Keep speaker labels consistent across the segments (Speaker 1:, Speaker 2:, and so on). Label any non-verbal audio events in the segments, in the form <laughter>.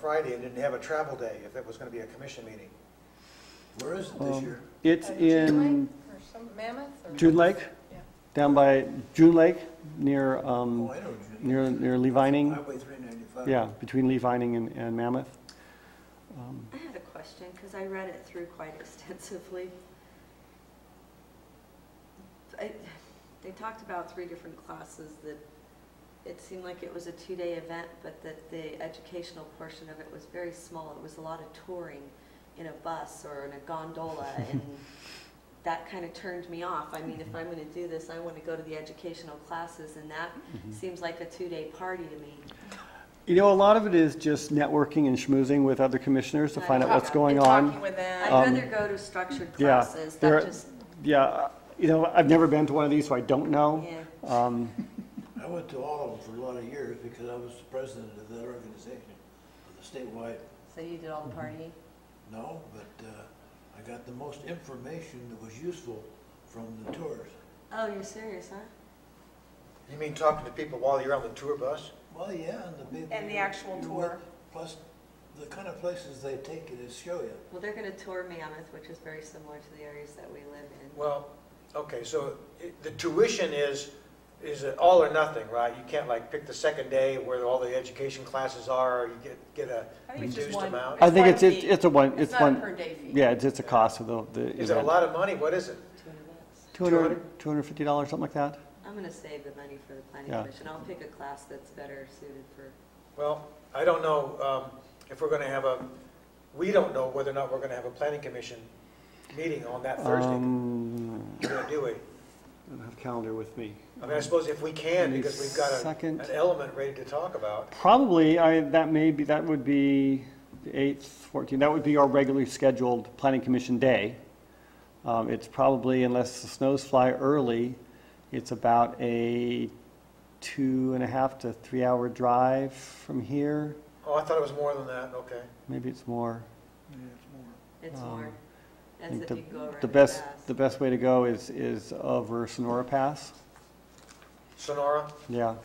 Speaker 1: Friday and didn't have a travel day if it was going to be a commission meeting.
Speaker 2: Where is it this year?
Speaker 3: It's
Speaker 4: Uh,
Speaker 3: in
Speaker 4: June Lake or some, Mammoth or?
Speaker 3: June Lake,
Speaker 4: Yeah.
Speaker 3: down by June Lake, near,
Speaker 2: Oh,
Speaker 3: um,
Speaker 2: I know, Judy.
Speaker 3: near, near Levining.
Speaker 2: Highway three ninety-five.
Speaker 3: Yeah, between Levining and, and Mammoth. Um,
Speaker 5: I had a question, because I read it through quite <laughs> extensively. I- They talked about three different classes that, it seemed like it was a two-day event, but that the educational portion of it was very small. It was a lot of touring in a bus or in a
Speaker 3: <laughs>
Speaker 5: gondola, and that kind of turned me off. I mean, if I'm going to do this, I want to go to the educational classes, and that
Speaker 3: Mm-hmm.
Speaker 5: seems like a two-day party to me.
Speaker 3: You know, a lot of it is just networking and schmoozing with other commissioners to find out what's going
Speaker 4: And
Speaker 3: on.
Speaker 4: Talking with
Speaker 5: I'd
Speaker 4: them.
Speaker 3: Um,
Speaker 5: rather go to structured
Speaker 3: yeah,
Speaker 5: classes,
Speaker 3: there-
Speaker 5: that just,
Speaker 3: Yeah, uh, you know, I've never been to one of these, so I don't know.
Speaker 5: yeah.
Speaker 3: Um,
Speaker 2: I went to all of them for a lot of years because I was the president of that organization, of the statewide,
Speaker 5: So you did all
Speaker 3: Mm-hmm.
Speaker 5: the partying?
Speaker 2: no, but, uh, I got the most information that was useful from the tours.
Speaker 5: Oh, you're serious, huh?
Speaker 1: You mean talking to people while you're on the tour bus?
Speaker 2: Well, yeah, and the people.
Speaker 4: And the
Speaker 2: you-
Speaker 4: actual
Speaker 2: you
Speaker 4: tour.
Speaker 2: went- Plus, the kind of places they take you to show you.
Speaker 5: Well, they're going to tour Mammoth, which is very similar to the areas that we live in.
Speaker 1: Well, okay, so it- the tuition is, is it all or nothing, right? You can't like pick the second day where all the education classes are, or you get, get a
Speaker 4: I think it's just
Speaker 1: reduced
Speaker 4: one-
Speaker 1: amount?
Speaker 3: I think
Speaker 4: one
Speaker 3: it's, it's
Speaker 4: fee.
Speaker 3: it's a one,
Speaker 4: It's
Speaker 3: it's
Speaker 4: not a
Speaker 3: one,
Speaker 4: per day fee.
Speaker 3: yeah, it's, it's a cost of the, the
Speaker 1: Is it a
Speaker 3: event.
Speaker 1: lot of money? What is it?
Speaker 5: Two events.
Speaker 3: Two hundred, two hundred fifty dollars, something like that?
Speaker 5: I'm going to save the money for the planning
Speaker 3: Yeah.
Speaker 5: commission. I'll pick a class that's better suited for,
Speaker 1: Well, I don't know um, if we're going to have a, we don't know whether or not we're going to have a planning commission meeting on that Thursday,
Speaker 3: Um,
Speaker 1: do we?
Speaker 3: I don't have a calendar with me.
Speaker 1: I mean, I suppose if we can, because we've got a-
Speaker 3: Second.
Speaker 1: an element ready to talk about.
Speaker 3: Probably, I, that may be, that would be the 8th, 14th, that would be our regularly scheduled planning commission day. Um, It's probably, unless the snows fly early, it's about a two and a half to three-hour drive from here.
Speaker 1: Oh, I thought it was more than that, okay.
Speaker 3: Maybe it's more.
Speaker 5: it's
Speaker 3: Um,
Speaker 5: more,
Speaker 3: I
Speaker 5: as
Speaker 3: think
Speaker 5: if
Speaker 3: the-
Speaker 5: you go around
Speaker 3: The
Speaker 5: and
Speaker 3: best,
Speaker 5: pass.
Speaker 3: the best way to go is, is over Sonora Pass,
Speaker 1: Sonora?
Speaker 3: yeah.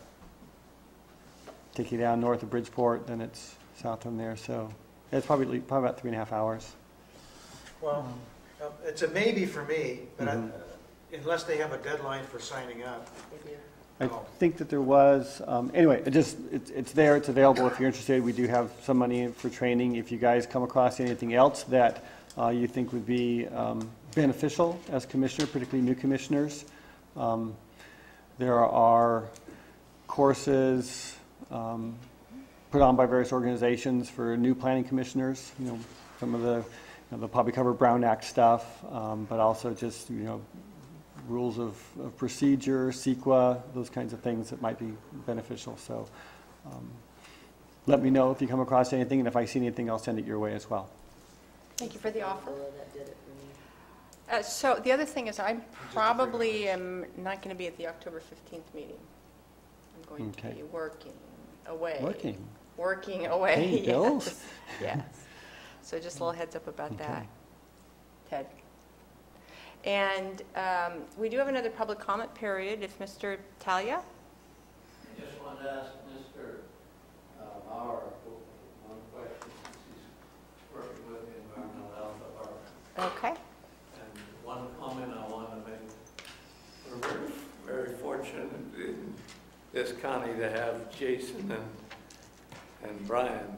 Speaker 3: Take you down north of Bridgeport, then it's south from there, so it's probably, probably about three and a half hours.
Speaker 1: Well, um, it's a maybe for me, but I- uh,
Speaker 3: Mhm.
Speaker 1: unless they have a deadline for signing up.
Speaker 5: They do.
Speaker 3: I
Speaker 1: Oh.
Speaker 3: think that there was, um, anyway, it just, it's, it's there, it's available if you're interested. We do have some money for training. If you guys come across anything else that uh, you think would be um, beneficial as commissioner, particularly new commissioners, um, there are courses um, put on by various organizations for new planning commissioners, you know, some of the, you know, they'll probably cover Brown Act stuff, um, but also just, you know, rules of of procedure, CEQA, those kinds of things that might be beneficial. So um, let me know if you come across anything, and if I see anything, I'll send it your way as well.
Speaker 6: Thank you for the offer.
Speaker 5: Well, that did it for me.
Speaker 6: Uh, So the other thing is, I probably am not going to be at the October 15th meeting. I'm going to
Speaker 3: Okay.
Speaker 6: be working away.
Speaker 3: Working.
Speaker 6: Working away.
Speaker 3: Paying bills.
Speaker 6: <laughs> yes, Yes. So just a little heads up about that,
Speaker 3: Okay.
Speaker 6: Ted. And um, we do have another public comment period if Mr. Talia?
Speaker 7: I just wanted to ask Mr. uh, Mauer one question, since he's working with the Environmental Health Department.
Speaker 6: Okay.
Speaker 7: And one comment I want to make, we're very- very fortunate in this county to have Jason and, and Brian.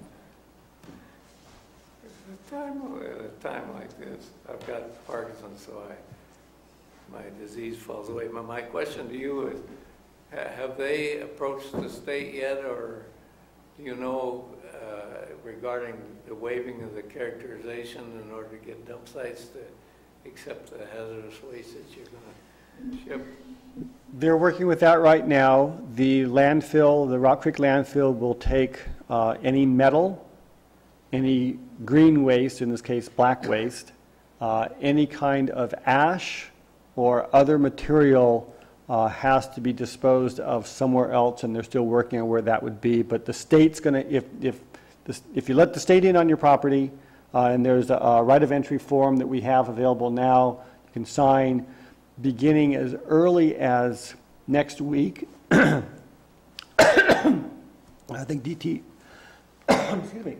Speaker 7: At a time, at a time like this, I've got Parkinson's, so I, my disease falls away. But my question to you is, ha- have they approached the state yet, or do you know uh, regarding the waiving of the characterization in order to get dump sites to Except the hazardous waste that you're gonna ship.
Speaker 3: They're working with that right now. The landfill, the Rock Creek landfill will take uh, any metal, any green waste, in this case, black waste, uh, any kind of ash or other material uh, has to be disposed of somewhere else, and they're still working on where that would be. But the state's going to, if, if, this- if you let the state in on your property, uh, and there's a- a right of entry form that we have available now, you can sign, beginning as early as next week. <coughs> I think DT, excuse me,